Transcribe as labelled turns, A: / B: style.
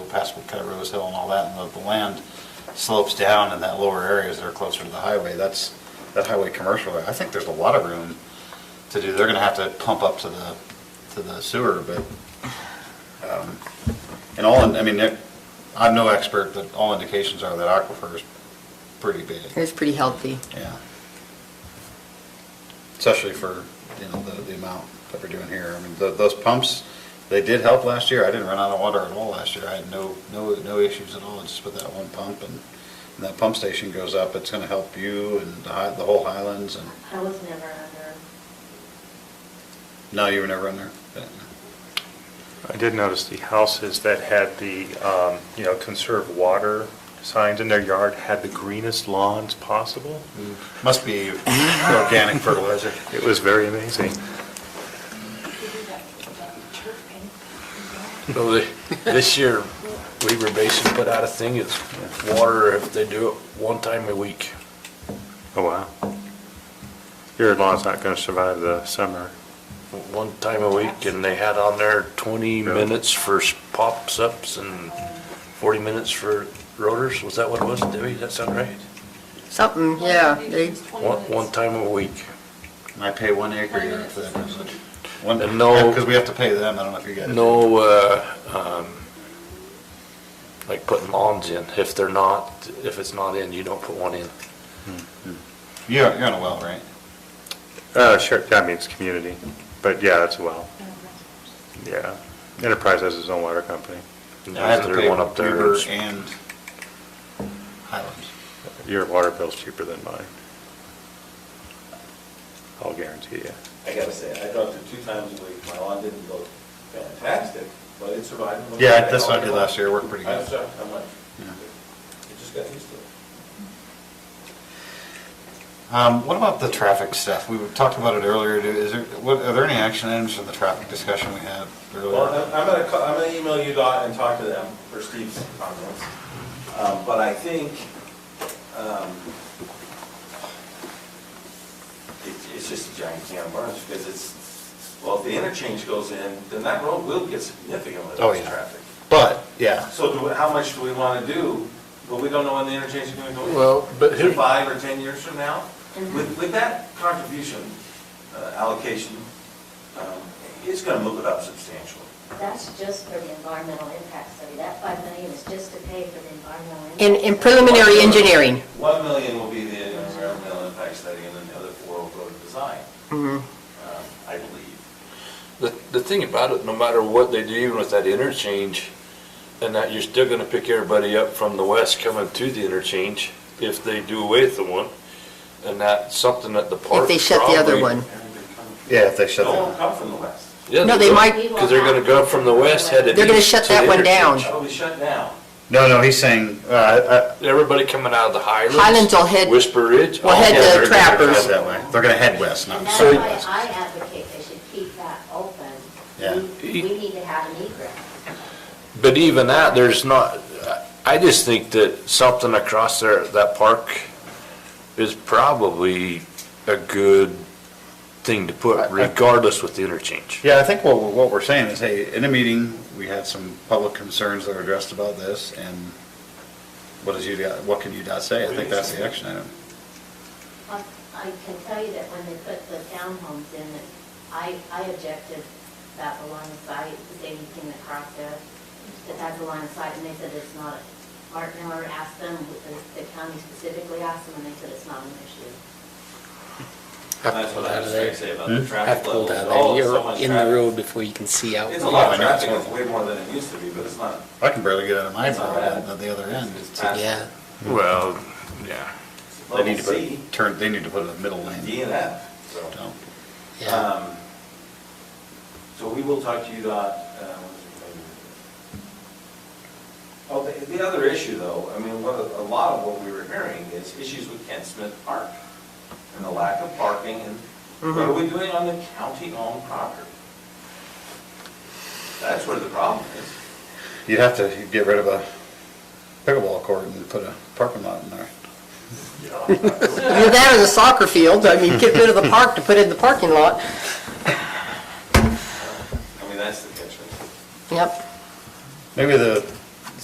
A: past Woodcut Rose Hill and all that, and the, the land slopes down in that lower areas that are closer to the highway, that's, that highway commercial, I think there's a lot of room to do, they're gonna have to pump up to the, to the sewer, but, um, and all, in- I mean, Nick, I'm no expert, but all indications are that aquifer is pretty big.
B: It was pretty healthy.
A: Yeah. Especially for, you know, the, the amount that we're doing here. I mean, tho- those pumps, they did help last year. I didn't run out of water at all last year. I had no, no, no issues at all, just with that one pump. And, and that pump station goes up, it's gonna help you and the hi, the whole Highlands and,
C: I was never under,
A: no, you were never in there. But- uh,
D: I did notice the houses that had the, um, you know, conserve water signs in their yard had the greenest lawns possible.
A: Must be organic fertilizer.
D: It was very amazing.
E: So the- This year, Weaver Basin put out a thing, it's water if they do it one time a week.
D: Oh, wow. Your lawn's not going to survive the summer.
E: One time a week, and they had on there 20
D: Really?
E: minutes for s- pops-ups and 40 minutes for rotors. Was that what it was, Debbie? Does that sound right?
B: Something, yeah, they,
E: One, one time a week.
A: And I pay one acre here for that privilege. One,
E: And no-
A: because we have to pay them. I don't know if you guys. do.
E: No, uh, um, like putting lawns in. If they're not, if it's not in, you don't put one in.
A: You're, you're on a well, right?
D: Uh, sure, that means community, but yeah, that's well, yeah. Enterprise has its own water company.
A: I have to
E: There's
A: pay
E: one up there.
A: Weber and Highlands.
D: Your water bill's cheaper than mine. I'll guarantee you.
F: I gotta say, I dropped it two times a week, my lawn didn't look fantastic, but it survived. and looked
A: Yeah,
F: good.
A: that's what I did last year, It worked pretty
F: I'm
A: good.
F: sorry, I'm like,
A: Yeah.
F: I just got used to it.
A: Um, what about the traffic stuff? We talked about it earlier, Do- is there, what, are there any action items from the traffic discussion we had
F: Well,
A: earlier?
F: I'm- I'm gonna, ca- I'm gonna email you dot and talk to them for Steve's comments. Um, But I think, um, it- it's just a giant can of worms, because it's, well, if the interchange goes in, then that road will get significantly
A: Oh,
F: less
A: yeah.
F: traffic.
A: But, yeah,
F: So do, we- how much do we wanna do, but we don't know when the interchange is gonna go in?
E: Well, but
F: in
E: here,
F: five or 10 years from now,
C: Mhm.
F: with, with that contribution uh, allocation, um, it's going to move it up substantially.
C: That's just for the environmental impact study. That five million is just to pay for the environmental. impact
B: in, in preliminary engineering.
F: 1 million will be the environmental impact study, and then the other four will go to design,
G: Mm-hmm.
B: Mhm.
F: um, I believe.
E: the, the thing about it, no matter what they do, even with that interchange, and that you're still gonna pick everybody up from the west coming to the interchange if they do away with the one. And that's something that the park
B: If they shut the other
E: probably-
B: one.
A: yeah, if they shut
F: No one will
A: that.
F: come from the west.
E: Yeah,
B: No, they
E: will,
B: might-
E: Cause they're gonna go from the west headed.
B: They're gonna
E: east
B: shut
E: to
B: that
E: the
B: one down.
E: interchange.
F: That'll be shut down.
A: No, no, he's saying, uh, uh,
E: Everybody coming out of the Highlands.
B: Highlands will head-
E: Whisper Ridge.
B: will
E: all
B: head
A: yeah,
B: the
A: they're- they're gonna head
B: trappers.
A: that way. They're gonna head west,
C: And
A: not
C: that's
A: south
C: why
A: west.
C: I advocate they should keep that open.
A: Yeah.
C: We we need to have an egress.
E: But even that, there's not, I just think that something across there, that park is probably a good thing to put regardless with the interchange.
A: Yeah, I think what, we're- what we're saying is, hey, in a meeting, we had some public concerns that were addressed about this, and what does UDOT, what can UDOT say? I think that's the action item.
C: I Um, I can tell you that when they put the townhomes in, that I, I objected that the line of sight, the same thing that crossed there, that that's a line of sight, and they said it's not. Mark Miller asked them, the- the county specifically asked them, and they said it's not an issue.
F: That's what I was trying to say about
A: Hmm?
F: the traffic
G: Have
F: levels.
G: pulled out of
F: Oh, it's so
G: You're
F: much
G: in the
F: traffic.
G: road before you can see out.
F: It's a lot of
A: Yeah, I know, it's
F: traffic, it's
A: horrible.
F: way more than it used to be, but it's not,
A: I can barely get out of my,
F: It's all
A: door
F: right.
A: at the other end.
F: it's past
G: Yeah,
E: Well, yeah.
A: They need
F: level
A: to
F: C,
A: put, turn, they need to put a middle lane.
F: D and F, so.
A: No.
G: yeah.
F: Um, So we will talk to you dot, uh, what is it, maybe? Oh, the, the other issue though, I mean, what, a lot of what we were hearing is issues with Kent Smith Park and the lack of parking and
A: Mm-hmm.
F: what are we doing on the county-owned property? That's where the problem is.
A: You'd have to get rid of a pickleball court and put a parking lot in there.
B: You're down in the soccer field, I mean, get rid of the park to put in the parking lot.
F: I mean, that's the catch.
B: Yep.
A: Maybe the